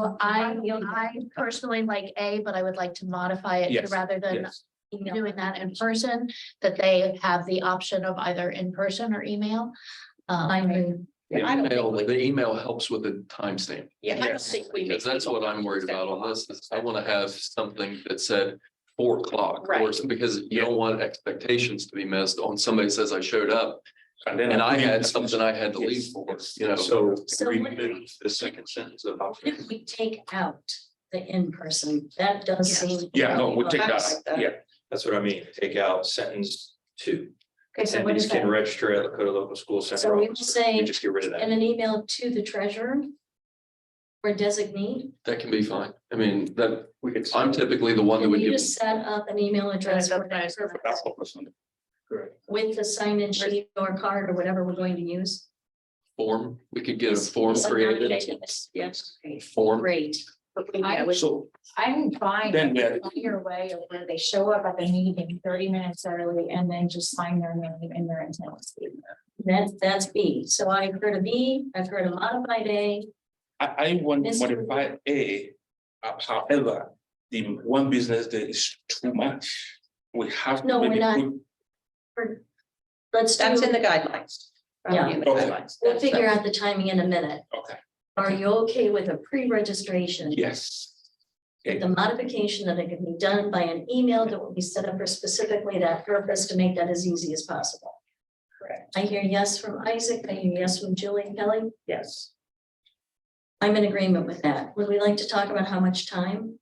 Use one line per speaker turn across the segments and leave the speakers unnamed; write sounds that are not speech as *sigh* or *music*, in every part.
So I,
Yield.
I personally like A, but I would like to modify it
Yes,
to rather than
Yes,
Email.
doing that in person, that they have the option of either in person or email. Um,
I move.
The
I don't think
email,
we-
the email helps with the timestamp,
Yeah, I don't
Yes.
think we.
because
make
that's what I'm worried about on this, is I wanna have something that said four o'clock. or
Right.
some- Because you don't want expectations to be missed on somebody says I showed up
And then
and I had something I had to leave for, you know, so
So
So
we
what-
move the second sentence of.
What If we take out the in-person, that does
Yes.
seem.
Yeah, no, we'll take
I
that,
like that.
yeah, that's what I mean, take out sentence two.
Okay, so what
Attendees
is
can
that?
register at Lakota local school center.
So we will
office.
say-
You Just get rid of
In
that,
an email to the treasurer? Or designee?
that can be fine. I mean, that,
we could.
I'm typically the one that
Can
would
you
give.
just set up an email address for that purpose
Correct.
with the sign-in sheet or card or whatever we're going to use?
form, we could get a
Is-
form
is it
created,
non-continuous? Yes, great.
form.
Great.
I would-
So
I'm fine
Then we-
with your way of where they show up at the meeting thirty minutes early and then just sign their name and their intent.
That's, that's B. So I've heard of B, I've heard of modified A.
I, I want to
Mr.
modify A. uh, However, the one business day is too much. We have. to
No, we're
maybe
not.
put-
Let's do,
That's in the guidelines.
Yeah.
In the
Okay.
guidelines.
we'll figure out the timing in a minute.
Okay,
Are you okay with a pre-registration?
yes.
The modification that it can be done by an email that will be set up for specifically that purpose to make that as easy as possible.
Correct.
I hear yes from Isaac, I hear yes from Julie and Kelly.
Yes.
I'm in agreement with that. Would we like to talk about how much time?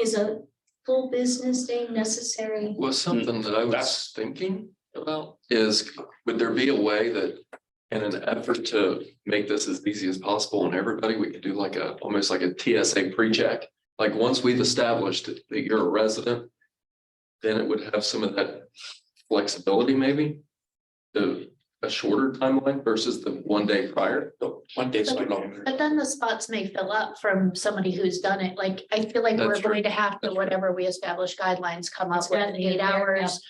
Is a full business day necessary?
Well, something that I was
That's-
thinking about Hmm. is, would there be a way that in an effort to make this as easy as possible on everybody, we could do like a, almost like a TSA pre-check? Like, once we've established that you're a resident, then it would have some of that flexibility maybe? The, a shorter timeline versus the one day prior?
No, One day is too long.
But then the spots may fill up from somebody who's done it. Like, I feel like we're
That's true.
going to have to, whatever we establish guidelines, come up with
That's
eight
their
hours.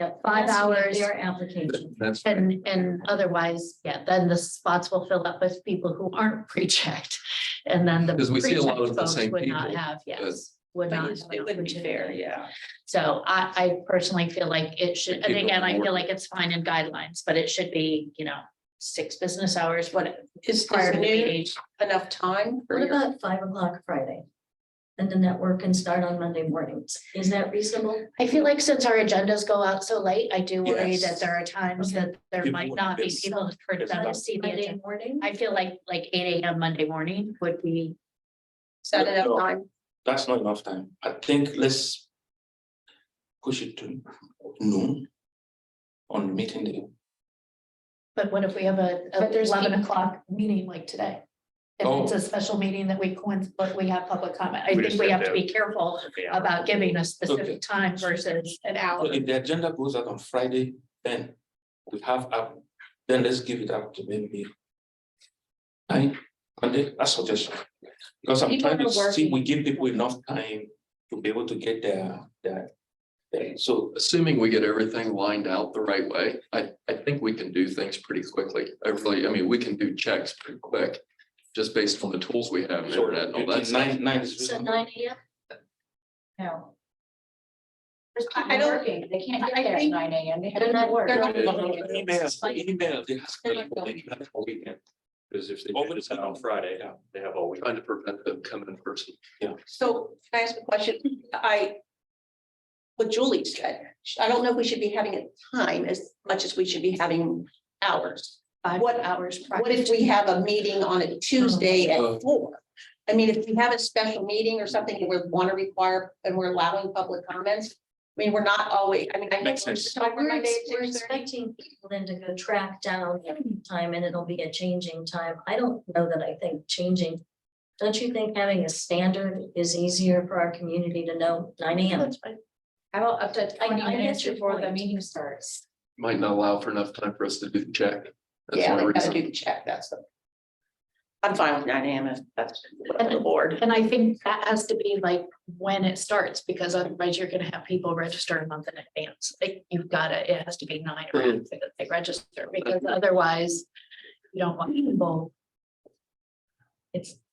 Yep,
Five
that's what
hours.
Their application.
That's.
And, and otherwise, yeah, then the spots will fill up with people who aren't *laughs* pre-checked. And then the.
Because we see a lot of the
pre-checked folks
same
Would not
people,
have, yes, would
But
not.
it's-
have an
It would be fair,
opportunity.
yeah.
So I, I personally feel like it should, and
People
again, I feel
more-
like it's fine in guidelines, but it should be, you know, six business hours, what,
Is
prior
is
to the
noon
age.
enough time for
What
your?
about five o'clock Friday? And then that work can start on Monday mornings. Is that reasonable?
I feel like since our agendas go out so late, I do worry
Yes.
that there are times
Okay.
that there
People
might
would
not be
miss-
people for
miss
them to
out.
see the
Monday
agenda.
morning?
I feel like, like eight AM Monday morning would be,
Is that
No.
enough time?
That's not enough time. I think let's push it to noon on meeting day.
but what if we have a a
But there's
eleven
people-
o'clock meeting like today? If
Oh.
it's a special meeting that we coin, but we have public comment, I
We
think
just
we
have
have to
to-
be careful about giving a specific time versus an hour.
So if the agenda goes out on Friday, then we have up, then let's give it up to maybe. Nine, Monday, that's suggestion. Because I'm
People
trying to
are
see, we
working.
give people enough time to be able to get their, their. their- so
assuming we get everything lined out the right way, I, I think we can do things pretty quickly. I really, I mean, we can do checks pretty quick. Just based on the tools we have and
so
internet and all that.
between
stuff.
nine, nine is.
So
reasonable.
nine AM?
No.
I- I don't-
They can't
I- I
get there at
think-
nine AM. They have
They're
to
not-
work.
they're not-
Email, email, they have.
They're not going.
Uh,
Because if they. Open it on Friday, yeah, they have all week.
Trying to prevent them coming in person.
So can I ask a question? I. What Julie said, I don't know if we should be having a time as much as we should be having hours.
Five
What-
hours? prior
What if
to-
we have a meeting on a Tuesday
Oh.
Uh-huh.
at four? I mean, if we have a special meeting or something and we want to require and we're allowing public comments. I mean, we're not always, I mean, I know.
Makes
we're
sense.
talking
We're
Monday
ex-
at
we're
6:30.
expecting people then to go track down every time and it'll be a changing time. I don't know that I think changing. Don't you think having a standard is easier for our community to know nine AM?
That's fine.
How about up to
I-
twenty
I
minutes
get your
before the
point.
meeting starts?
Might not allow for enough time for us to do the check. That's
Yeah,
my
we gotta
reason.
do the check, that's the. I'm fine with nine AM if that's what the board.
And I think that has to be like when it starts, because otherwise you're gonna have people register a month in advance. Like you've gotta, it has to be nine or after that they register, because otherwise you don't want people. It's